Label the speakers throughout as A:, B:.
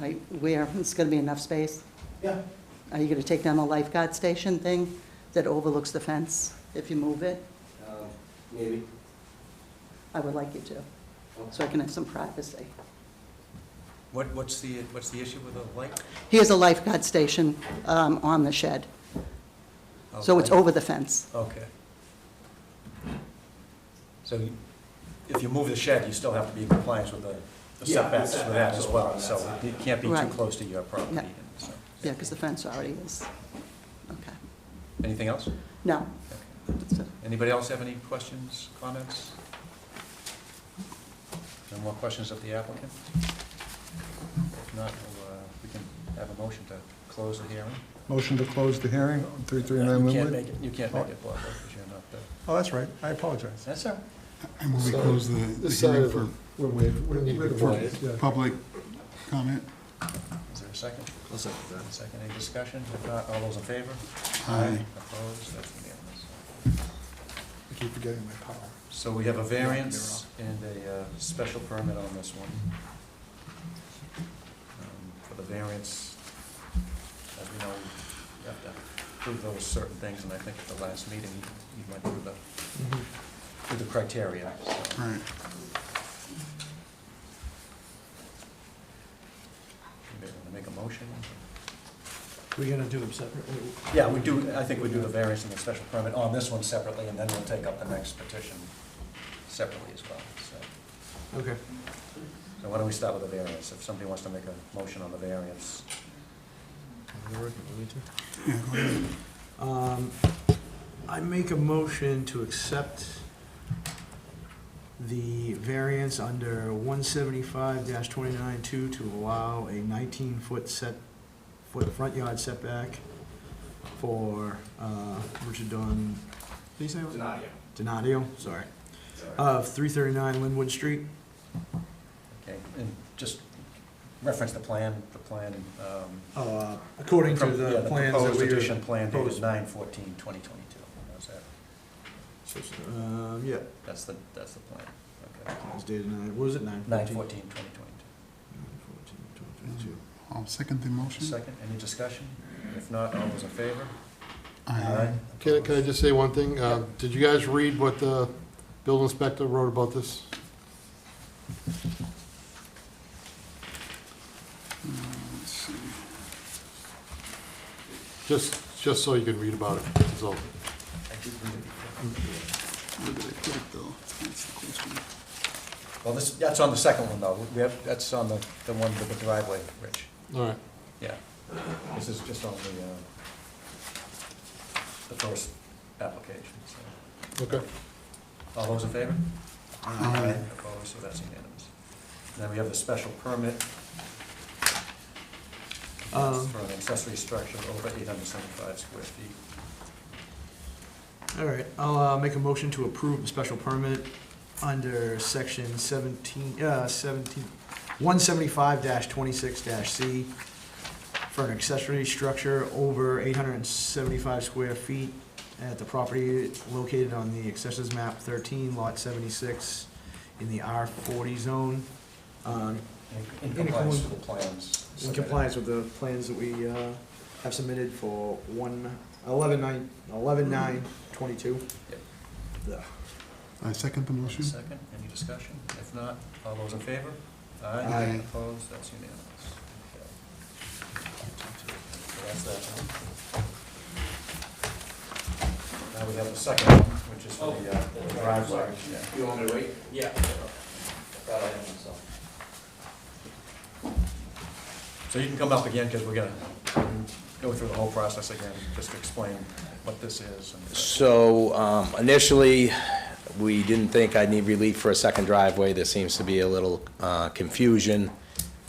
A: like where it's going to be enough space?
B: Yeah,
A: Are you going to take down the lifeguard station thing that overlooks the fence if you move it?
B: um, maybe.
A: I would like you to, so I can have some privacy.
C: What, what's the, what's the issue with the light?
A: Here's a lifeguard station um, on the shed, so it's
C: Oh, Okay.
A: over the fence.
C: Okay. So you- if you move the shed, you still have to be in compliance with the the
B: Yeah, the
C: setbacks for that as
B: setbacks
C: well,
B: on that
C: so
B: side.
C: it can't be too
A: Right.
C: close to your property.
A: Yeah.
C: and so-
A: Yeah, because the fence already is. Okay.
C: Anything else?
A: No.
C: Okay.
A: That's it.
C: Anybody else have any questions, comments? No more questions of the applicant? If not, we'll, uh, we can have a motion to close the hearing.
D: Motion to close the hearing on
C: You
D: 339
C: can't
D: Linwood?
C: make it, you can't make it, Bob, because you're not the,
D: Oh, that's right, I apologize.
C: that's all right.
E: I move we
F: So,
E: close the, the
F: this side
E: hearing
F: of
E: for
F: it.
D: We're waived, we're
F: Need to be
D: we're-
F: quiet.
D: yeah.
E: public comment.
C: Is there a 2nd second. Any discussion? If not, all those in favor?
E: Aye.
C: Opposed? That's unanimous.
D: I keep forgetting my power.
C: So we have a variance and a uh, special permit on this one. Um, For the variance, as we know, we have to prove those certain things, and I think at the last meeting, you went through the, through the criteria. so.
E: Right.
C: Anybody want to make a motion?
F: We're gonna do them separately?
C: Yeah, we do, I think we do the variance and the special permit on this one separately, and then we'll take up the next petition separately as well, so.
F: Okay.
C: So why don't we start with the variance? If somebody wants to make a motion on the variance,
E: Yeah, go ahead.
F: Um, I make a motion to accept the variance under one seventy-five twenty-nine two to allow a nineteen-foot set, foot front yard setback for, uh, Richard Don, did you say? it was-
B: Deny it.
F: Donadio, sorry,
B: Sorry.
F: of three thirty-nine Linwood Street.
C: okay, and just reference the plan, the plan, um...
F: Uh, According to
C: pro- yeah,
F: the plans that
C: proposed
F: we were.
C: addition plan dated
F: proposing.
C: nine fourteen twenty twenty-two. That's that,
F: Um, yeah,
C: that's the, that's the plan, okay.
F: it was dated nine, what was it, nine
C: Nine
F: fourteen?
C: fourteen twenty twenty-two.
E: I'll second the motion.
C: Second, any discussion? If not, all those in favor?
E: Aye.
G: Can I, can I just say one thing? Uh, Did you guys read what the building inspector wrote about this?
E: uh, Let's see.
G: Just, just so you can read about it, that's all.
C: I did read it before.
E: Where did I put it, though? That's the question.
C: Well, this, that's on the second one, though. We have, that's on the, the one with the driveway, Rich.
G: All right.
C: Yeah, this is just on the, uh, the first application, so.
G: Okay.
C: All those in favor?
E: Aye.
C: Opposed, so that's unanimous. Then we have the special permit
F: Um.
C: for an accessory structure over eight hundred seventy-five square feet.
F: All right, I'll uh, make a motion to approve a special permit under section seventeen, uh, seventeen, one seventy-five twenty-six C for an accessory structure over eight hundred and seventy-five square feet at the property located on the accessories map thirteen, lot seventy-six, in the R forty zone, um,
C: In
F: In
C: compliance
F: accordance-
C: with the plans.
F: in
C: submitted.
F: compliance with the plans that we, uh, have submitted for one, eleven nine, eleven nine twenty-two.
C: Yep.
F: Ugh.
E: I second the motion.
C: Second, any discussion? If not, all those in favor?
F: Aye.
C: Opposed, that's unanimous. Okay. So that's that one. Now we have the second one, which is for the uh,
B: Oh,
C: the driveway. Yeah.
B: You want me to wait? Yeah.
C: So you can come up again, because we're gonna go through the whole process again, just to explain what this is. and-
B: So um, initially, we didn't think I'd need relief for a second driveway. There seems to be a little uh, confusion.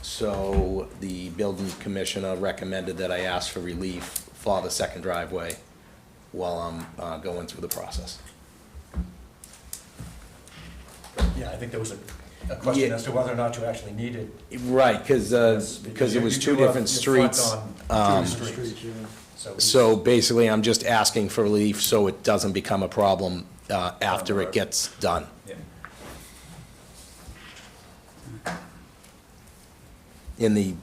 B: So the building commissioner recommended that I ask for relief for the second driveway while I'm uh, going through the process.
C: Yeah, I think there was a a question
B: Yeah.
C: as to whether or not you actually needed.
B: Right, because,
C: this,
B: because it
C: you-
B: was
C: you
B: two
C: do have-
B: different
C: you front
B: streets.
C: on
B: um,
C: Two different streets,
F: Street, yeah.
C: so. we-
B: So basically, I'm just asking for relief so it doesn't become a problem uh, after it gets done.
C: Yeah.
B: In the